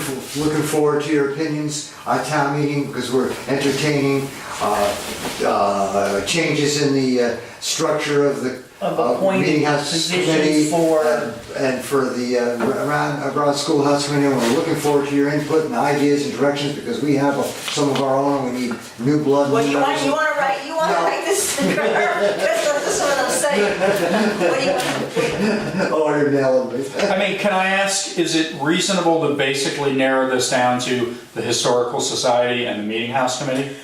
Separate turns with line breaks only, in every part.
f- looking forward to your opinions on town meeting because we're entertaining uh, uh, changes in the uh, structure of the
Of
uh,
appointed
meeting house
positions
committee
for-
and- and for the uh, around around schoolhouse committee. We're looking forward to your input and ideas and directions because we have some of our own. We need new blood.
What do
new
you want,
members.
you wanna write, you wanna
No.
write this, that's what this is what I'm saying. What do you want?
Oh, you're nailing me.
I mean, can I ask, is it reasonable to basically narrow this down to the Historical Society and the Meeting House Committee?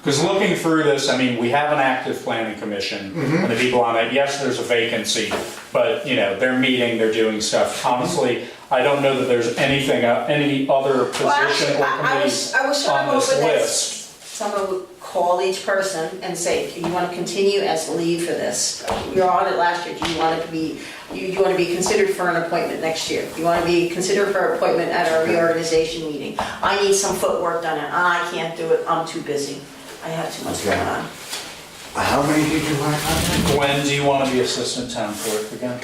Because looking through this, I mean, we have an active planning commission, and the people on it, yes, there's a vacancy, but, you know, they're meeting, they're doing stuff. Honestly, I don't know that there's anything, uh, any other
Well,
position
actually,
or
I I was,
committees
I was trying
on
to
this
over
list.
this. Someone would call each person and say, do you wanna continue as lead for this? You're on it last year, do you wanna be, you, you wanna be considered for an appointment next year? You wanna be considered for appointment at our reorganization meeting? I need some footwork done, and I can't do it, I'm too busy. I have too much
Okay.
going on.
How many did you want?
Gwen, do you want to be assistant town clerk again?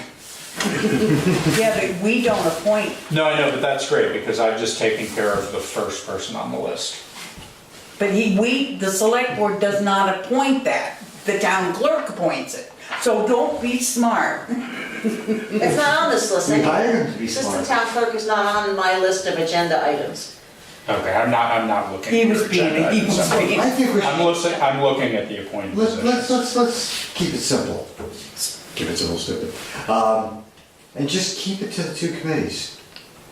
Yeah, but we don't appoint,
No, I know, but that's great, because I've just taken care of the first person on the list.
but he, we, the select board does not appoint that. The town clerk appoints it. So don't be smart.
It's not on this list.
We hired him to be
Assistant
smart.
town clerk is not on my list of agenda items.
Okay, I'm not, I'm not looking.
He
at
was
your
being-
agenda
he
items.
was
I'm-
being-
I think we
I'm
should,
looking, I'm looking at the appointed
let's, let's, let's,
positions.
let's keep it simple. Keep it simple, stupid. Um, and just keep it to the two committees.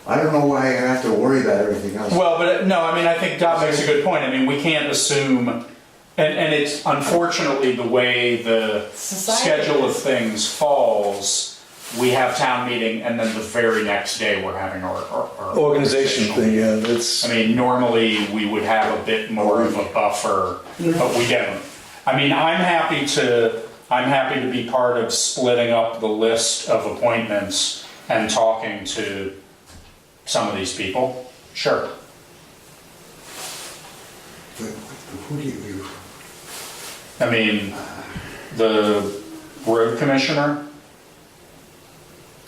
I don't know why I have to worry about everything else.
Well, but, no, I mean, I think Dot makes a good point, I mean, we can't assume, and, and it's unfortunately the way the
Society
schedule of
is.
things falls, we have town meeting, and then the very next day, we're having our, our. our
Organization
organizational.
thing, yeah, that's,
I mean, normally, we would have a bit more of a buffer, but we don't. I mean, I'm happy to, I'm happy to be part of splitting up the list of appointments and talking to some of these people, sure.
But Who do you,
I mean, the road commissioner.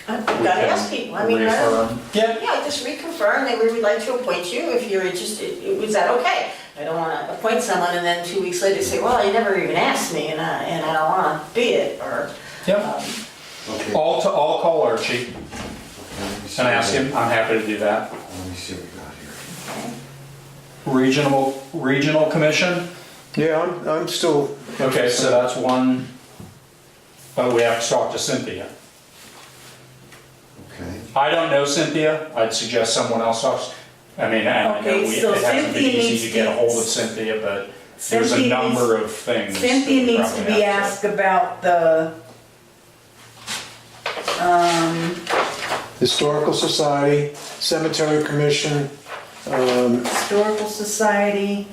I've
we
got to
can
ask people, I mean, I don't-
reaffirm. Yeah,
yeah, just reconfirm that we would like to appoint you if you're interested, is that okay? I don't want to appoint someone and then two weeks later say, well, you never even asked me and I, and I don't want to be it, or.
yeah.
um,
okay.
All to, all call Archie
Let me see
and
what
Oh, ask
we-
him, I'm happy to do that.
Let me see what we got here.
Regional, regional commission,
yeah, I'm, I'm still,
okay, so that's one, but we have to talk to Cynthia.
Okay.
I don't know Cynthia, I'd suggest someone else talks, I mean, and I know
Okay,
we-
so
it hasn't been
Cynthia needs
easy to get a
to-
hold of Cynthia, but there's a
Cynthia
number of things. that
Cynthia
we
needs to
probably
be
have
asked about the, um,
Historical Society, Cemetery Commission, um,
Historical Society,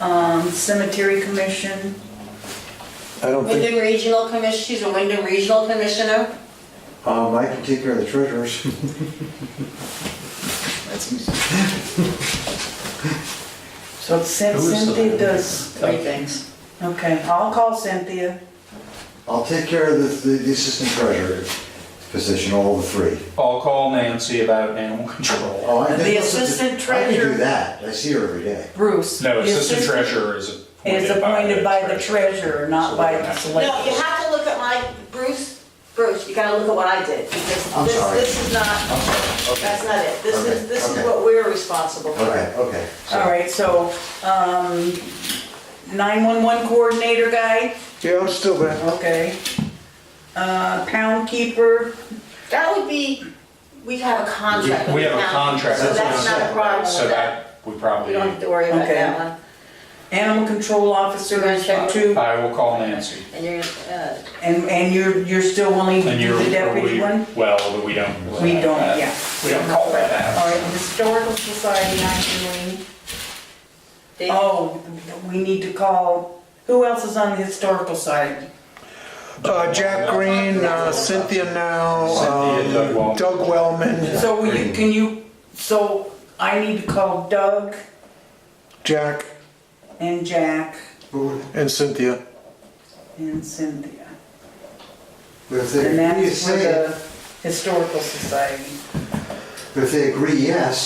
um, Cemetery Commission.
I don't think,
Wyndham Regional Commission, she's a Wyndham Regional Commissioner.
Um, I can take care of the treasurers.
So Cyn- Cynthia does three things. Okay, I'll call Cynthia.
I'll take care of the, the the assistant treasurer position, all the three.
I'll call Nancy about animal control.
Oh, I think
The
that's-
assistant
I can
treasurer-
do that. I see her every day.
Bruce.
No,
the
assistant treasurer is appointed by the
Is appointed by the treasurer, not
So
by
we're
the
gonna have to-
No, you
select.
have to look at my, Bruce, Bruce, you gotta look at what I
I'm
did, because this,
sorry.
this is not, that's not it. This
Okay,
is, this
okay.
is what we're responsible for.
Okay, okay. so-
All right, so, um, 911 coordinator guy,
yeah, I'm still there.
okay. Uh, pound keeper,
That would be, we have a contract.
We
with
have a
the county,
contract.
So
that's what
that's
I'm
not a
saying.
problem
So
with that.
that, we
You
probably,
don't have to worry about
Okay.
that one.
animal control officer,
You're gonna check?
two,
I will call Nancy.
And you're, uh,
and, and you're, you're still willing to
And you're,
do the
are we-
deputy one?
well, we don't.
We don't,
uh,
yeah.
We don't call that
All
out.
right, historical society, 19,
they-
oh, we need to call, who else is on the historical side?
Uh, Jack Green, uh, Cynthia now,
Cynthia, Doug
um,
Wellman.
Doug Wellman,
So will you, can you, so I need to call Doug
Jack
and Jack
But what-
and Cynthia.
and Cynthia.
but if they
And
agree to
that's for
say, it-
the historical society.
but if they agree yes,